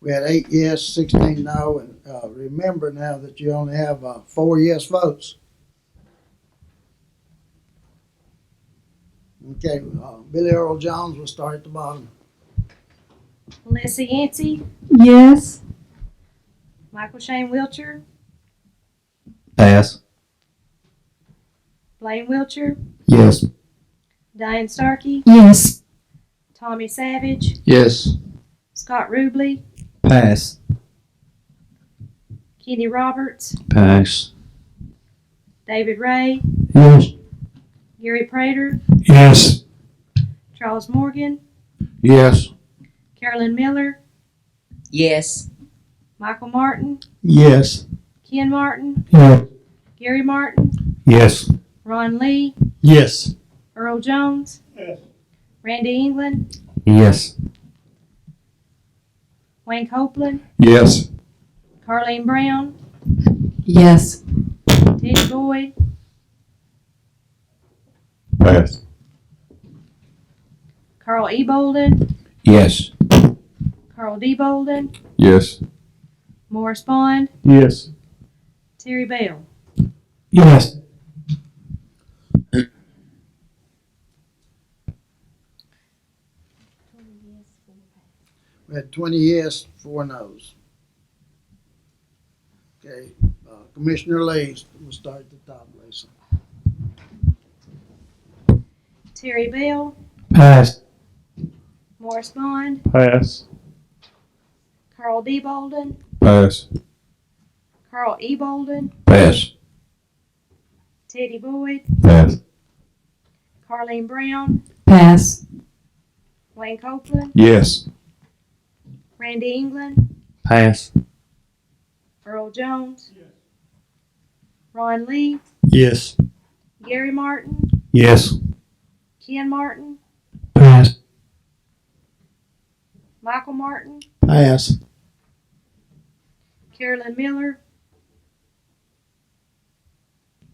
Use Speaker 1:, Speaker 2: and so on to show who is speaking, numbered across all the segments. Speaker 1: We had eight yes, sixteen no, and, uh, remember now that you only have, uh, four yes votes. Okay, uh, Billy Earl Jones will start at the bottom.
Speaker 2: Melissa Yancey,
Speaker 3: Yes.
Speaker 2: Michael Shane Wiltshire,
Speaker 4: Pass.
Speaker 2: Blaine Wiltshire,
Speaker 4: Yes.
Speaker 2: Diane Starkey,
Speaker 3: Yes.
Speaker 2: Tommy Savage,
Speaker 4: Yes.
Speaker 2: Scott Ruble,
Speaker 4: Pass.
Speaker 2: Kenny Roberts,
Speaker 4: Pass.
Speaker 2: David Ray,
Speaker 4: Yes.
Speaker 2: Gary Prater,
Speaker 4: Yes.
Speaker 2: Charles Morgan,
Speaker 4: Yes.
Speaker 2: Carolyn Miller,
Speaker 5: Yes.
Speaker 2: Michael Martin,
Speaker 4: Yes.
Speaker 2: Ken Martin,
Speaker 4: Yes.
Speaker 2: Gary Martin,
Speaker 4: Yes.
Speaker 2: Ron Lee,
Speaker 4: Yes.
Speaker 2: Earl Jones, Randy England,
Speaker 4: Yes.
Speaker 2: Wayne Copeland,
Speaker 4: Yes.
Speaker 2: Carleen Brown,
Speaker 3: Yes.
Speaker 2: Teddy Boyd,
Speaker 4: Pass.
Speaker 2: Carl E. Bolden,
Speaker 4: Yes.
Speaker 2: Carl D. Bolden,
Speaker 4: Yes.
Speaker 2: Morris Bond,
Speaker 4: Yes.
Speaker 2: Terry Bell.
Speaker 4: Yes.
Speaker 1: We had twenty yes, four no's. Okay, uh, Commissioner Lee, we'll start at the top, Lisa.
Speaker 2: Terry Bell,
Speaker 4: Pass.
Speaker 2: Morris Bond,
Speaker 4: Pass.
Speaker 2: Carl D. Bolden,
Speaker 4: Pass.
Speaker 2: Carl E. Bolden,
Speaker 4: Pass.
Speaker 2: Teddy Boyd,
Speaker 4: Pass.
Speaker 2: Carleen Brown,
Speaker 3: Pass.
Speaker 2: Wayne Copeland,
Speaker 4: Yes.
Speaker 2: Randy England,
Speaker 4: Pass.
Speaker 2: Earl Jones, Ron Lee,
Speaker 4: Yes.
Speaker 2: Gary Martin,
Speaker 4: Yes.
Speaker 2: Ken Martin,
Speaker 4: Pass.
Speaker 2: Michael Martin,
Speaker 4: Pass.
Speaker 2: Carolyn Miller,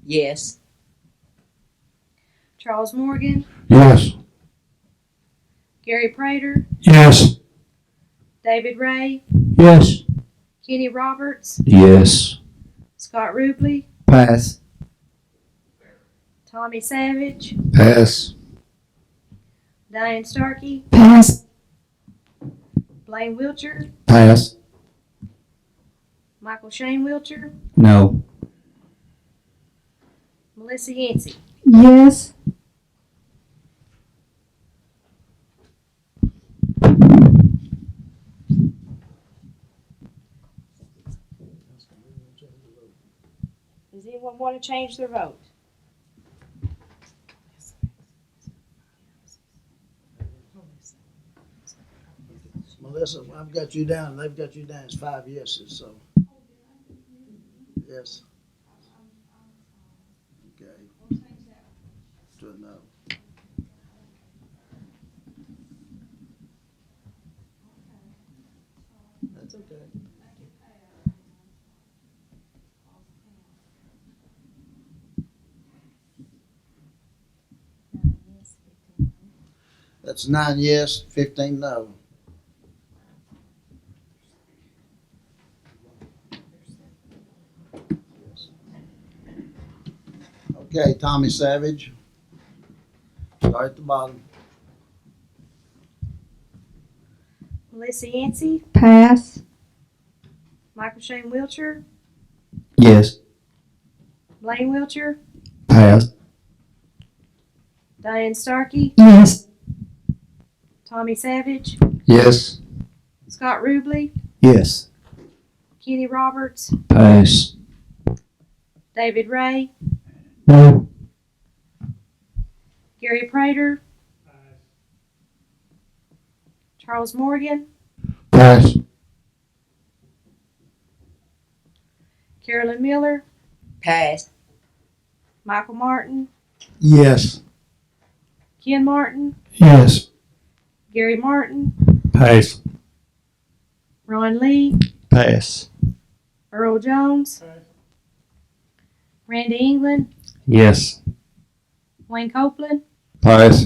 Speaker 5: Yes.
Speaker 2: Charles Morgan,
Speaker 4: Yes.
Speaker 2: Gary Prater,
Speaker 4: Yes.
Speaker 2: David Ray,
Speaker 4: Yes.
Speaker 2: Kenny Roberts,
Speaker 4: Yes.
Speaker 2: Scott Ruble,
Speaker 4: Pass.
Speaker 2: Tommy Savage,
Speaker 4: Pass.
Speaker 2: Diane Starkey,
Speaker 3: Pass.
Speaker 2: Blaine Wiltshire,
Speaker 4: Pass.
Speaker 2: Michael Shane Wiltshire,
Speaker 4: No.
Speaker 2: Melissa Yancey.
Speaker 3: Yes.
Speaker 2: Does anyone want to change their vote?
Speaker 1: Melissa, I've got you down, they've got you down, it's five yeses, so. Yes. Okay. To a no. That's okay. That's nine yes, fifteen no. Okay, Tommy Savage. Start at the bottom.
Speaker 2: Melissa Yancey,
Speaker 3: Pass.
Speaker 2: Michael Shane Wiltshire,
Speaker 4: Yes.
Speaker 2: Blaine Wiltshire,
Speaker 4: Pass.
Speaker 2: Diane Starkey,
Speaker 3: Yes.
Speaker 2: Tommy Savage,
Speaker 4: Yes.
Speaker 2: Scott Ruble,
Speaker 4: Yes.
Speaker 2: Kenny Roberts,
Speaker 4: Pass.
Speaker 2: David Ray,
Speaker 4: No.
Speaker 2: Gary Prater, Charles Morgan,
Speaker 4: Pass.
Speaker 2: Carolyn Miller,
Speaker 5: Pass.
Speaker 2: Michael Martin,
Speaker 4: Yes.
Speaker 2: Ken Martin,
Speaker 4: Yes.
Speaker 2: Gary Martin,
Speaker 4: Pass.
Speaker 2: Ron Lee,
Speaker 4: Pass.
Speaker 2: Earl Jones, Randy England,
Speaker 4: Yes.
Speaker 2: Wayne Copeland,
Speaker 4: Pass.